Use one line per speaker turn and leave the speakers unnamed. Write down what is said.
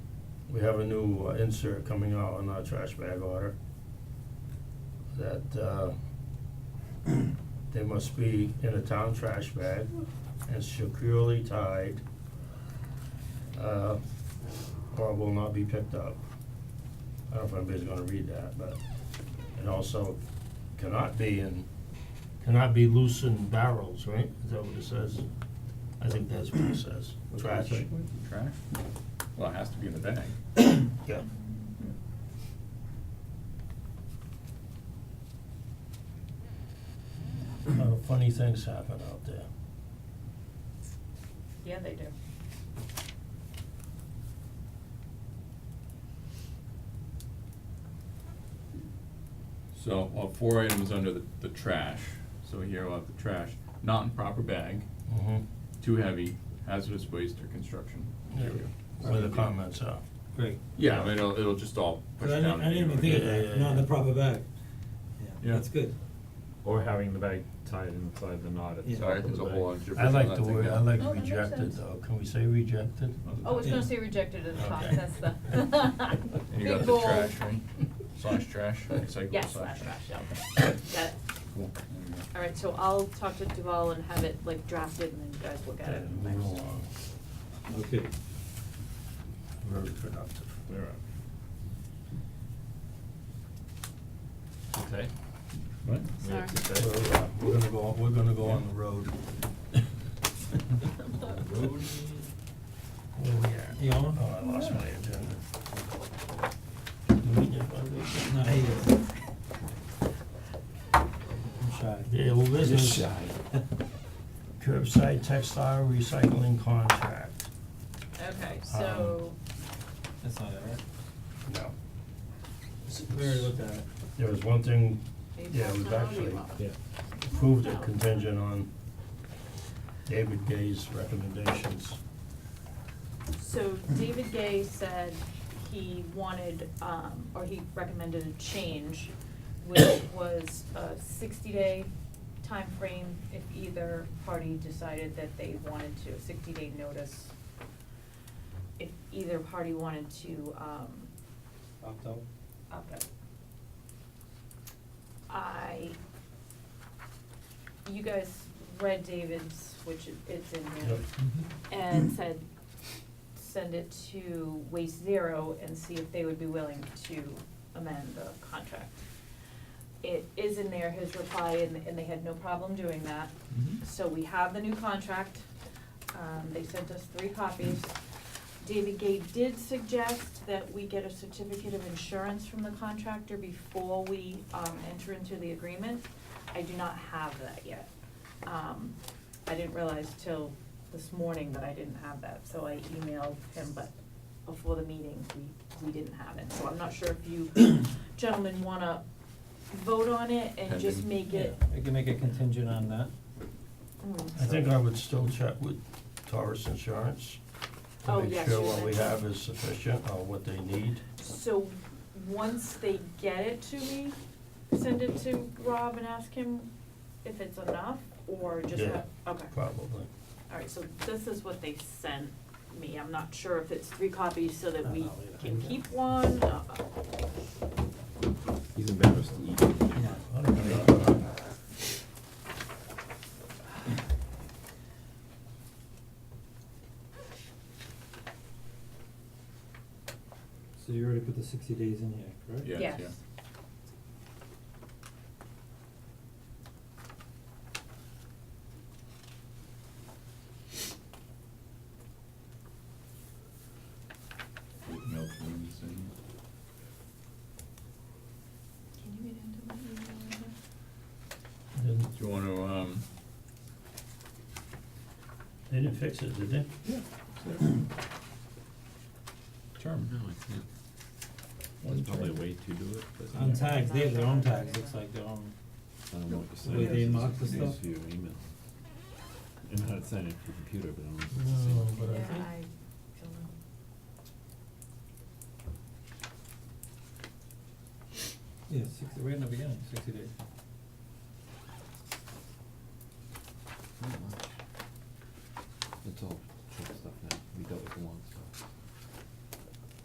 we have a new uh, insert coming out on our trash bag order that uh they must be in a town trash bag and securely tied uh or will not be picked up. I don't know if anybody's gonna read that, but it also cannot be in cannot be loosened barrels, right? Is that what it says? I think that's what it says,
What's
trash.
that?
Trash? Well, it has to be in the bag.
Yeah. A lot of Uh, funny things happen out there.
Yeah, they do.
So, well, four items under the, the trash, so here we'll have the trash, not in proper bag,
Mm-hmm.
too heavy, hazardous waste or construction. There we go.
Where the comments are.
Great.
Yeah, but it'll, it'll just all push
But I
down.
didn't, I
and
didn't even think of
Yeah, yeah,
that, not in
yeah.
the proper bag.
Yeah.
Yeah, that's good.
Or having the bag tied inside the knot at the
Yeah.
top
Sorry,
of the
there's a
bag.
whole lot of gibberish
I
on
like
that
the
thing
word,
now.
I like
Oh, that makes
rejected
sense.
though, can we say rejected?
Oh, it's gonna
Yeah.
say rejected at the top,
Okay.
that's the
And you
big
got the
bold.
trash, right? Slash trash, recycle
Yes,
slash
slash
trash.
trash, okay. Got it.
Cool, there you go.
Alright, so I'll talk to Duval and have it like drafted and then you guys look at
Okay,
it
moving
next.
along,
Okay.
very productive.
There.
Okay.
What?
We have to
We're,
say-
uh, we're gonna go, we're gonna go on the road.
Road.
Where we at?
You on?
Oh, I lost my agenda. You mean your budget?
No, he is. I'm shy.
Yeah, well, this is-
Just shy.
Curbside textile recycling contract.
Okay,
Um,
so,
That's not it, right?
No.
We already looked at it.
There was one thing,
are you
yeah, it was
passing it on or you
actually
want?
Yeah.
approved a contingent on David Gay's recommendations.
So David Gay said he wanted, um, or he recommended a change, which was a sixty-day time frame if either party decided that they wanted to, sixty-day notice. If either party wanted to, um,
Opt out.
opt out. I, you guys read David's, which it- it's in there
Yep.
Mm-hmm. and said, send it to Waste Zero and see if they would be willing to amend the contract. It is in there, his reply, and, and they had no problem doing that.
Mhm.
So we have the new contract, um, they sent us three copies. David Gay did suggest that we get a certificate of insurance from the contractor before we, um, enter into the agreement. I do not have that yet. Um, I didn't realize till this morning that I didn't have that, so I emailed him, but before the meeting, we, we didn't have it. So I'm not sure if you gentlemen wanna vote on it and just
Pending.
make it.
We can make a contingent on that.
Mm,
I think I would still check with Taurus Insurance
Oh,
to make
yes,
sure
you
what we
mentioned.
have is sufficient or what they need.
So, once they get it to me, send it to Rob and ask him if it's enough, or just,
Yeah.
what- okay.
Probably.
Alright, so this is what they sent me, I'm not sure if it's three copies so that we
I'll leave it.
can keep one, uh,
He's embarrassed to eat.
Yeah.
I don't know.
So you already put the sixty days in here, correct?
Yeah.
yes.
Milk rooms and-
Can you get into my email again?
Didn't,
Do you wanna, um,
they didn't fix it, did they?
term? No, I can't. One
There's probably a
term.
way to do it, but.
On tags, they have their own tags, looks like their own,
I don't know what you're
the
saying.
way they mark the
It's
stuff.
for your email. I know how to sign it for your computer, but I don't know. if it's the same.
No, but I
Yeah,
think.
I don't know.
Yeah, sixty, right in the beginning, sixty days.